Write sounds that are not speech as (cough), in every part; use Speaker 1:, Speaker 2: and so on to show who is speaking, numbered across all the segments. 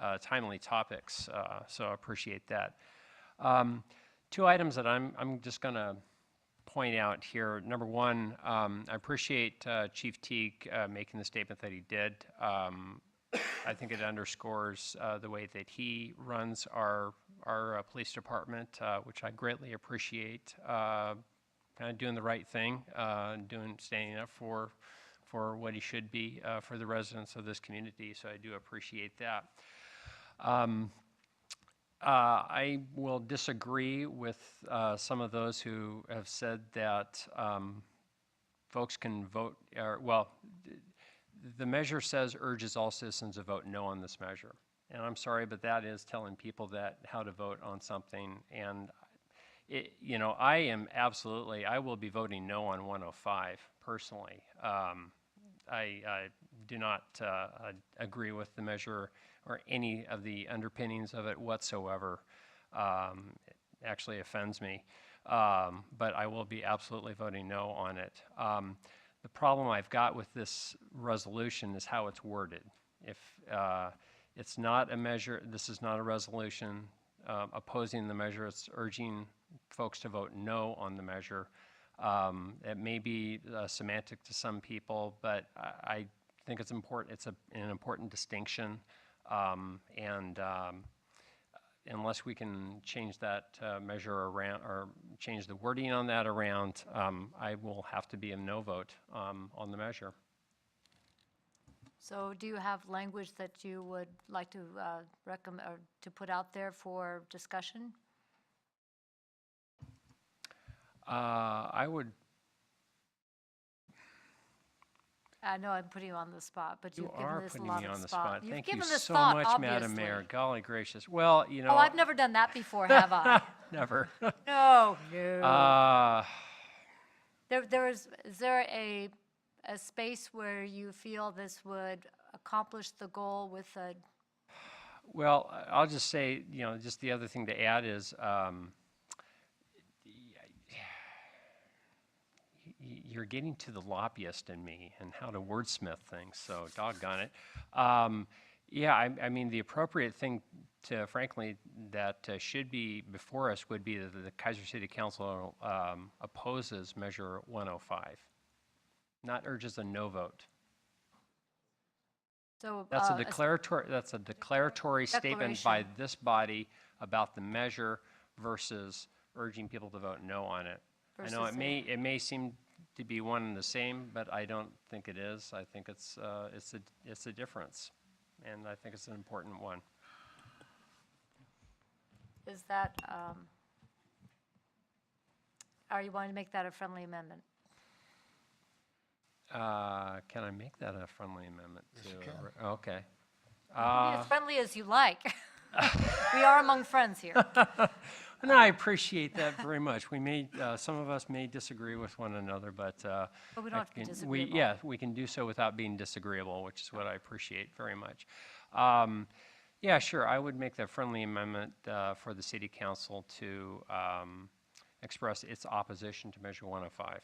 Speaker 1: uh, timely topics, uh, so I appreciate that. Um, Two items that I'm, I'm just going to point out here. Number one, um, I appreciate uh, Chief Teague uh, making the statement that he did. Um, I think it underscores uh, the way that he runs our, our uh, police department, uh, which I greatly appreciate. Kind of doing the right thing, uh, and doing, standing up for, for what he should be uh, for the residents of this community, so I do appreciate that. Um, uh, I will disagree with uh, some of those who have said that um, folks can vote, or, well, th- the measure says urges all citizens to vote no on this measure. And I'm sorry, but that is telling people that, how to vote on something. And it, you know, I am absolutely, I will be voting no on 105 personally. Um, I, I do not uh, uh, agree with the measure or any of the underpinnings of it whatsoever. Um, it actually offends me, um, but I will be absolutely voting no on it. Um, the problem I've got with this resolution is how it's worded. If uh, it's not a measure, this is not a resolution uh, opposing the measure, it's urging folks to vote no on the measure. Um, It may be uh, semantic to some people, but I I think it's important, it's a- an important distinction. Um, And um, unless we can change that uh, measure around, or change the wording on that around, um, I will have to be a no vote um, on the measure.
Speaker 2: So do you have language that you would like to uh, recommend, or to put out there for discussion?
Speaker 1: Uh, I would,
Speaker 2: I know I'm putting you on the spot, but
Speaker 1: you
Speaker 2: you've given
Speaker 1: are
Speaker 2: this a
Speaker 1: putting
Speaker 2: lot
Speaker 1: me
Speaker 2: of
Speaker 1: on the spot.
Speaker 2: You've
Speaker 1: Thank you
Speaker 2: given this
Speaker 1: so
Speaker 2: thought,
Speaker 1: much, Madam Mayor.
Speaker 2: obviously.
Speaker 1: Golly gracious. Well, you know.
Speaker 2: Oh, I've never done that before,
Speaker 1: (laughs)
Speaker 2: have I? (laughs)
Speaker 1: Never.
Speaker 2: No, no.
Speaker 1: Uh,
Speaker 2: There, there is, is there a, a space where you feel this would accomplish the goal with a,
Speaker 1: Well, I- I'll just say, you know, just the other thing to add is, um, y- you're getting to the lobbyist in me and how to wordsmith things, so doggone it. Um, yeah, I, I mean, the appropriate thing to, frankly, that uh, should be before us would be that the Kaiser City Council um, opposes Measure 105, not urges a no vote.
Speaker 2: so?
Speaker 1: That's
Speaker 2: uh,
Speaker 1: a
Speaker 2: s-
Speaker 1: declaratory, that's a declaratory statement by
Speaker 2: Declaration.
Speaker 1: this body about the measure versus urging people to vote no on it. I know
Speaker 2: Versus
Speaker 1: it
Speaker 2: a-
Speaker 1: may, it may seem to be one and the same, but I don't think it is. I think it's, uh, it's a, it's a difference, and I think it's an important one.
Speaker 2: Is that, um, are you wanting to make that a friendly amendment?
Speaker 1: Uh, Can I make that a friendly amendment to? a re- Okay.
Speaker 2: Be
Speaker 1: Uh,
Speaker 2: as friendly as
Speaker 1: (laughs)
Speaker 2: you like. (laughs) We are among friends here.
Speaker 1: And I appreciate that very much. We may, uh, some of us may disagree with one another, but. uh,
Speaker 2: But we don't
Speaker 1: I
Speaker 2: have to be
Speaker 1: can- we-
Speaker 2: disagreeable.
Speaker 1: Yeah, we can do so without being disagreeable, which is what I appreciate very much. Um, Yeah, sure, I would make the friendly amendment uh, for the city council to um, express its opposition to Measure 105.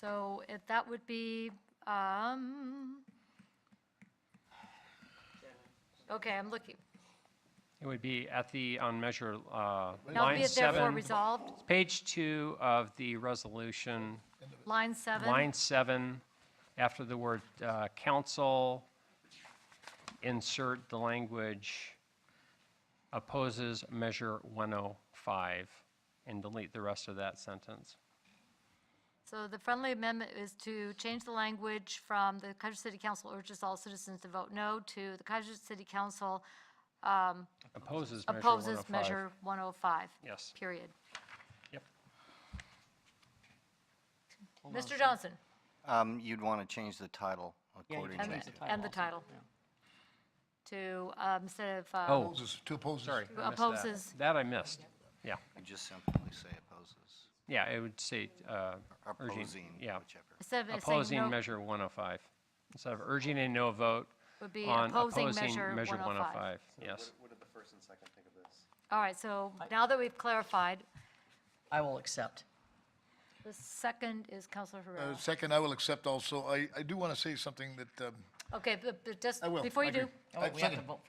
Speaker 2: So if that would be, um, okay, I'm looking.
Speaker 1: It would be at the, on Measure, uh,
Speaker 2: Now be
Speaker 1: line
Speaker 2: it therefore
Speaker 1: seven,
Speaker 2: resolved,
Speaker 1: page two of the resolution,
Speaker 2: line seven.
Speaker 1: Line seven, after the word uh, council, insert the language opposes Measure 105, and delete the rest of that sentence.
Speaker 2: So the friendly amendment is to change the language from the Kaiser City Council urges all citizens to vote no to the Kaiser City Council um,
Speaker 1: Opposes Measure 105.
Speaker 2: opposes Measure 105.
Speaker 1: Yes.
Speaker 2: Period.
Speaker 1: Yep.
Speaker 2: Mr. Johnson,
Speaker 3: Um, you'd want to change the title
Speaker 4: Yeah, you
Speaker 3: accordingly.
Speaker 4: can
Speaker 2: and
Speaker 4: change the title.
Speaker 2: and the
Speaker 4: also,
Speaker 2: title.
Speaker 4: yeah.
Speaker 2: to, um, instead of. um,
Speaker 1: Oh,
Speaker 5: Opposes, two opposes.
Speaker 1: sorry. I missed that.
Speaker 2: Opposes.
Speaker 1: That I missed. Yeah,
Speaker 3: You just simply say opposes,
Speaker 1: yeah, it would say uh, urging.
Speaker 3: opposing,
Speaker 1: Yeah,
Speaker 3: whichever.
Speaker 2: Instead of saying
Speaker 1: opposing
Speaker 2: no,
Speaker 1: Measure 105. Instead of urging a no vote
Speaker 2: would be
Speaker 1: on
Speaker 2: opposing
Speaker 1: opposing
Speaker 2: measure
Speaker 1: Measure
Speaker 2: 105.
Speaker 1: 105. Yes.
Speaker 2: All right, so now that we've clarified,
Speaker 4: I will accept.
Speaker 2: the second is Counselor Herrera.
Speaker 5: Uh, Second, I will accept also, I, I do want to say something that, um,
Speaker 2: Okay, but but just,
Speaker 5: I will,
Speaker 2: before
Speaker 5: I
Speaker 2: you do,
Speaker 5: agree.
Speaker 4: Oh,
Speaker 5: Uh,
Speaker 4: we have to
Speaker 5: second.
Speaker 4: vote